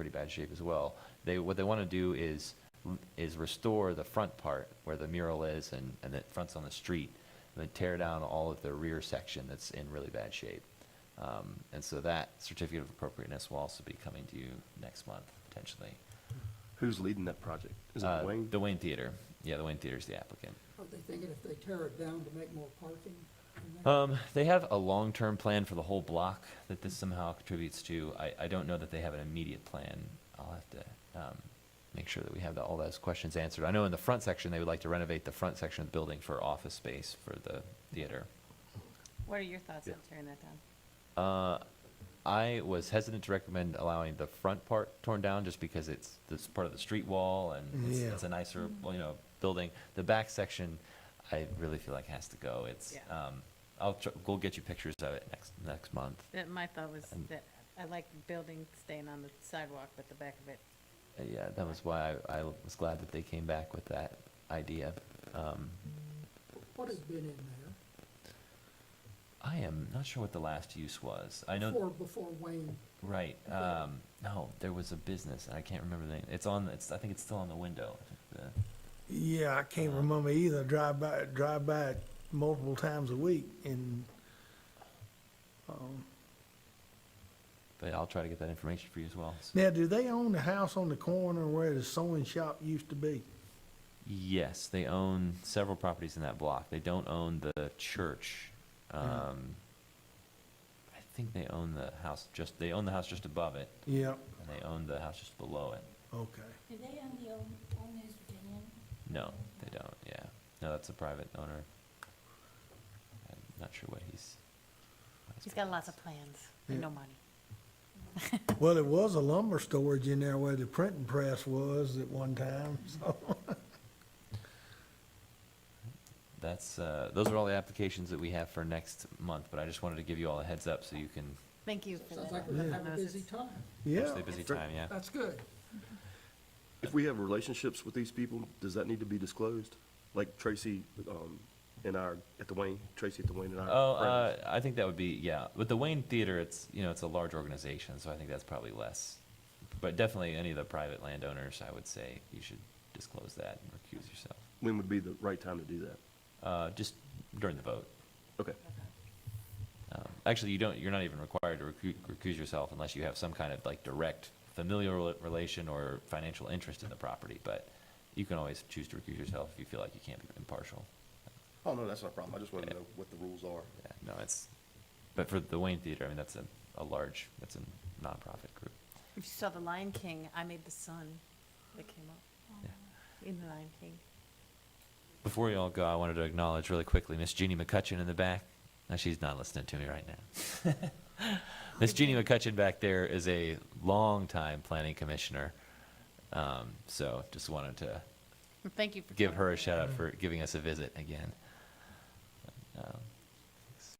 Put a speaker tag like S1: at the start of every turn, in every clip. S1: pretty bad shape as well. They, what they want to do is, is restore the front part where the mural is and, and that front's on the street, and then tear down all of the rear section that's in really bad shape. Um, And so that certificate of appropriateness will also be coming to you next month, potentially.
S2: Who's leading that project? Is
S1: Uh,
S2: it Wayne?
S1: The Wayne Theater. Yeah, the Wayne Theater's the applicant.
S3: Are they thinking if they tear it down to make more parking? in there?
S1: Um, they have a long-term plan for the whole block that this somehow contributes to. I, I don't know that they have an immediate plan. I'll have to, um, make sure that we have the- all those questions answered. I know in the front section, they would like to renovate the front section of the building for office space for the theater.
S4: What are your thoughts on tearing that down?
S1: Uh, I was hesitant to recommend allowing the front part torn down just because it's this part of the street wall and it's,
S5: Yeah.
S1: it's a nicer, well, you know, building. The back section, I really feel like has to go. It's,
S4: Yeah.
S1: um, I'll, tr- we'll get you pictures of it next, next month.
S4: That, my thought was
S1: And-
S4: that I like the building staying on the sidewalk, but the back of it,
S1: Uh, Yeah, that was why I, I was glad that they came back with that idea. Um,
S3: What has been in there
S1: I am not sure what the last use was. I know,
S3: before, before Wayne?
S1: right, um, no, there was a business and I can't remember the name. It's on, it's, I think it's still on the window. uh, The-
S5: Yeah, I can't
S1: Uh-huh.
S5: remember either. Drive by, drive by it multiple times a week and, um,
S1: But I'll try to get that information for you as well. So-
S5: now, do they own the house on the corner where the sewing shop used to be?
S1: Yes, they own several properties in that block. They don't own the church. Um, I think they own the house just, they own the house just above it
S5: Yeah,
S1: and they own the house just below it.
S5: okay.
S6: Do they own the old, old News Virginian?
S1: No, they don't, yeah. No, that's a private owner. I'm not sure what he's. what his
S4: he's got
S1: plan
S4: lots
S1: is.
S4: of plans and
S5: Yeah.
S4: no money.
S5: Well, it was a lumber storage in there where the printing press was at one time, so.
S1: That's, uh, those are all the applications that we have for next month, but I just wanted to give you all a heads up so you can,
S4: Thank you for
S3: Sounds
S4: that.
S3: like we're gonna have a
S4: Those is-
S3: busy time.
S5: Yeah,
S1: mostly busy time, yeah.
S3: That's good.
S2: If we have relationships with these people, does that need to be disclosed? Like Tracy, um, and our, at the Wayne, Tracy at the Wayne and our.
S1: Oh, uh, I think that would be, yeah. With the Wayne Theater, it's, you know, it's a large organization, so I think that's probably less. But definitely any of the private landowners, I would say you should disclose that and recuse yourself,
S2: When would be the right time to do that?
S1: uh, just during the vote.
S2: Okay.
S1: Um, Actually, you don't, you're not even required to recu- recuse yourself unless you have some kind of like direct familial rela- relation or financial interest in the property, but you can always choose to recuse yourself if you feel like you can't be impartial.
S2: Oh, no, that's not a problem. I just wanted to know what the rules are.
S1: Yeah, no, it's, but for the Wayne Theater, I mean, that's a, a large, that's a nonprofit group.
S4: If you saw The Lion King, I made the sun that came up
S1: Yeah.
S4: in The Lion King.
S1: Before we all go, I wanted to acknowledge really quickly Miss Jeannie McCutcheon in the back. Now she's not listening to me right now. Miss Jeannie McCutcheon back there is a longtime planning commissioner. Um, so just wanted to
S4: And Thank you for.
S1: give
S4: coming.
S1: her a shout out for giving us a visit again. Um,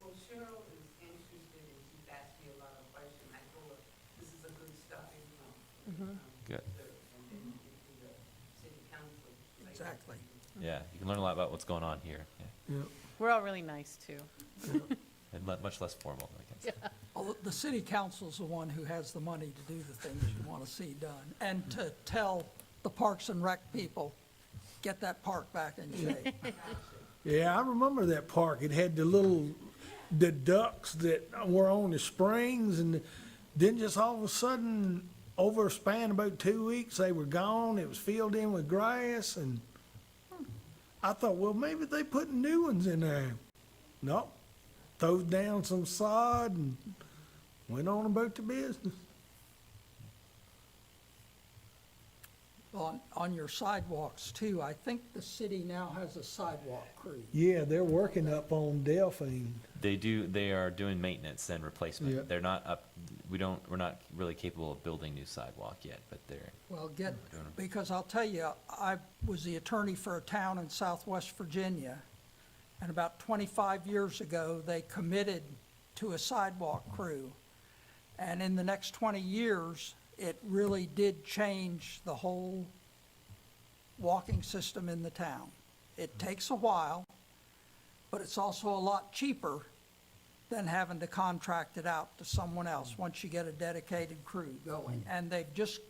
S7: Well, Cheryl is interested and she's asked me a lot of questions. I told her, this is a good starting point. um,
S1: Good.
S7: so- And then you get to the city council. later.
S3: Exactly.
S1: yeah, you can learn a lot about what's going on here. Yeah.
S5: yeah.
S4: We're all really nice too.
S1: And le- much less formal, I guess.
S3: Although Oh, the city council's the one who has the money to do the things you want to see done and to tell the Parks and Rec people, get that park back in shape.
S5: Yeah, I remember that park. It had the little, the ducks that were on the springs and then just all of a sudden, over a span of about two weeks, they were gone. It was filled in with grass and I thought, well, maybe they put new ones in there. Nope. Threw down some sod and went on about the business.
S3: On, on your sidewalks too, I think the city now has a sidewalk crew.
S5: Yeah, they're working up on Delphine.
S1: They do, they are doing maintenance and
S5: Yeah.
S1: replacement. They're not up, we don't, we're not really capable of building new sidewalk yet, but they're,
S3: Well, get,
S1: doing it.
S3: because I'll tell you, I was the attorney for a town in southwest Virginia, and about 25 years ago, they committed to a sidewalk crew. And in the next 20 years, it really did change the whole walking system in the town. It takes a while, but it's also a lot cheaper than having to contract it out to someone else once you get a dedicated crew going. And they've just